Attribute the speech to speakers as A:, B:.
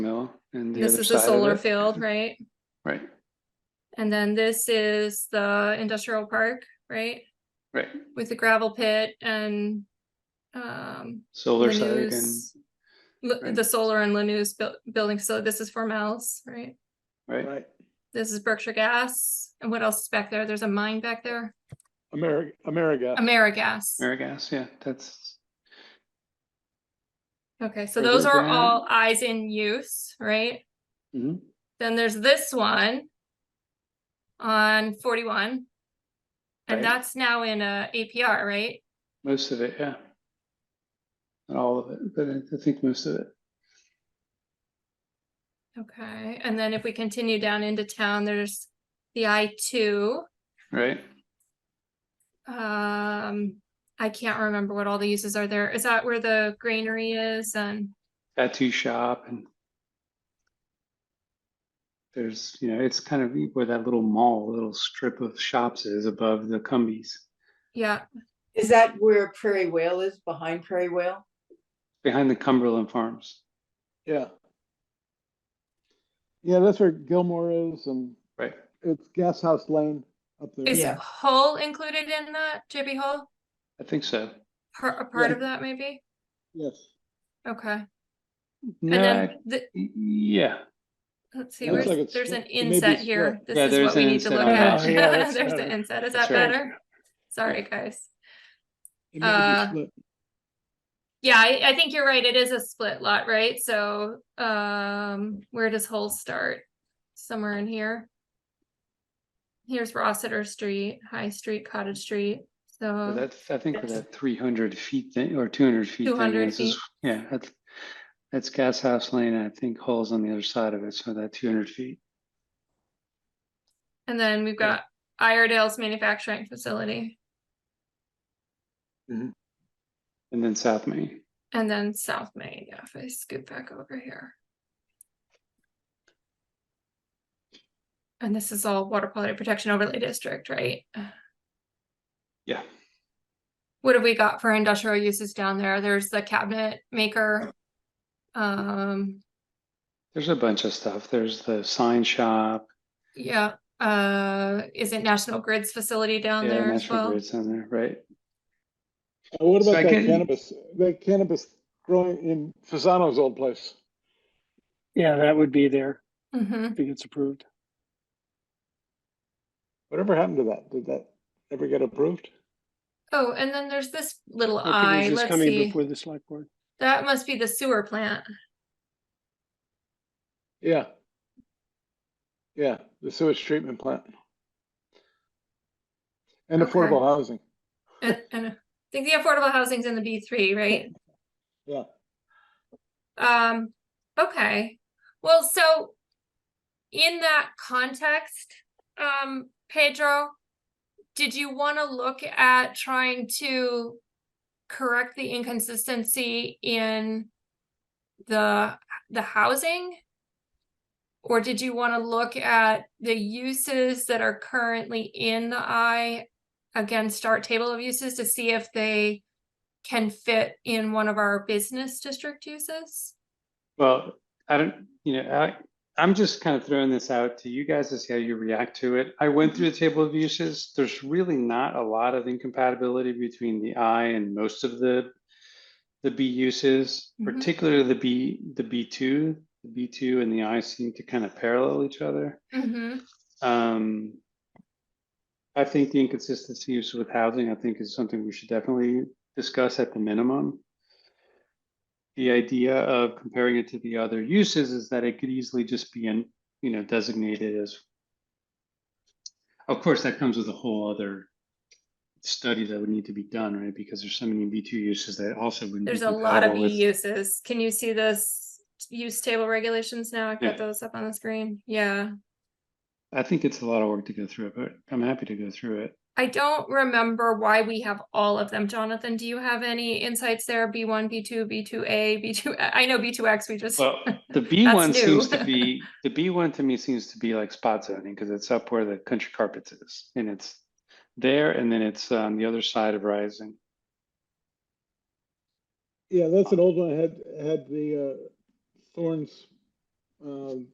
A: mill and the
B: This
A: other
B: is the
A: side of
B: solar
A: it.
B: field, right?
A: Right,
B: And then this is the industrial park, right?
A: right.
B: With the gravel pit and um.
A: Solar side and,
B: Lanús- L-
A: right.
B: The solar and Lanús buil- building, so this is Formel's, right?
A: right,
C: Right,
B: This is Berkshire Gas, and what else is back there? There's a mine back there,
C: America, America.
B: Amerigas.
A: Marigas, yeah, that's,
B: Okay, so
A: Further
B: those are
A: down.
B: all eyes in use, right?
A: mhm,
B: Then there's this one on forty-one.
A: Right.
B: And that's now in a APR, right?
A: most of it, yeah. Not all of it, but I- I think most of it.
B: Okay, and then if we continue down into town, there's the I two.
A: Right,
B: Um, I can't remember what all the uses are there. Is that where the granary is and?
A: tattoo shop and there's, you know, it's kind of where that little mall, little strip of shops is above the Cumbies,
B: Yeah,
D: Is that where Prairie Whale is, behind Prairie Whale?
A: behind the Cumberland Farms.
C: Yeah. Yeah, that's where Gilmore is and
A: Right,
C: it's Gas House Lane up there.
B: is
D: Yeah.
B: Hull included in that, JB Hull?
A: I think so.
B: Part, a part
C: Yeah.
B: of that maybe?
C: Yes.
B: Okay, and
A: No, I-
B: then the,
A: y- yeah,
B: let's see,
A: Looks
B: where's,
C: like it's
B: there's an
C: split. It may be
B: inset here.
C: split.
A: Yeah,
B: This is
A: there's
B: what we
A: an
B: need to
A: inset
B: look
A: on
B: at.
A: that.
C: Oh, yeah, that's
B: There's the
C: better.
B: inset. Is that
A: That's right.
B: better? Sorry, guys.
C: It may
B: Uh,
C: be split.
B: Yeah, I, I think you're right. It is a split lot, right? So, um, where does Hull start? Somewhere in here. Here's Rossiter Street, High Street, Cottage Street,
A: Well,
B: so,
A: That's, I think for that three hundred feet thing or two hundred feet. thing,
B: 200
A: this is-
B: feet.
A: Yeah, that's, that's Gas House Lane. and I think Hall's on the other side of it. So that two hundred feet.
B: and then we've got Iredale's manufacturing facility.
A: And then South Main.
B: And then South Main, yeah, if I scoot back over here. And this is all water quality protection overlay district, right?
A: Yeah.
B: What have we got for industrial uses down there? There's the cabinet maker. Um,
A: There's a bunch of stuff. There's the sign shop.
B: yeah, uh, is it National Grid's facility down
A: Yeah,
B: there as
A: National
B: well?
A: Grid's on there, right?
C: Uh, What
A: so
C: about
A: I
C: that
A: can-
C: cannabis, that cannabis growing in Fasano's old place?
E: Yeah, that would be there
B: hmm
E: if it gets approved.
C: Whatever happened to that? Did that ever get approved?
B: Oh, and then there's this little
E: I
B: eye,
E: think it was just
B: let's
E: coming
B: see,
E: before the select board.
B: that must be the sewer plant.
C: Yeah. Yeah, the sewage treatment plant. And
B: Okay.
C: affordable housing.
B: And, and I think the affordable housing's in the B three, right?
C: Yeah.
B: Um, okay, well, so. In that context, um, Pedro. Did you wanna look at trying to correct the inconsistency in? The, the housing? Or did you wanna look at the uses that are currently in the I? Against our table of uses to see if they can fit in one of our business district uses?
A: Well, I don't, you know, I, I'm just kind of throwing this out to you guys to see how you react to it. I went through the table of uses. There's really not a lot of incompatibility between the I and most of the the B uses,
B: Mhm.
A: particularly the B, the B two, the B two and the I seem to kind of parallel each other.
B: Mhm.
A: Um, I think the inconsistencies with housing, I think is something we should definitely discuss at the minimum. The idea of comparing it to the other uses is that it could easily just be in, you know, designated as. Of course, that comes with a whole other study that would need to be done, right? Because there's so many B two uses that also wouldn't. be
B: There's a lot of E
A: compatible
B: B
A: with-
B: uses. Can you see this use table regulations now? I've
A: Yeah.
B: got those up on the screen. Yeah.
A: I think it's a lot of work to go through, but I'm happy to go through it.
B: I don't remember why we have all of them. Jonathan, do you have any insights there? B one, B two, B two A, B two, I know B two X, we just,
A: Well, the B
B: That's
A: one seems
B: new.
A: to be, the B one to me seems to be like spot zoning, because it's up where the country carpets is, and it's there, and then it's on the other side of Rising.
C: Yeah, that's an old one, had, had the uh, Thorns um,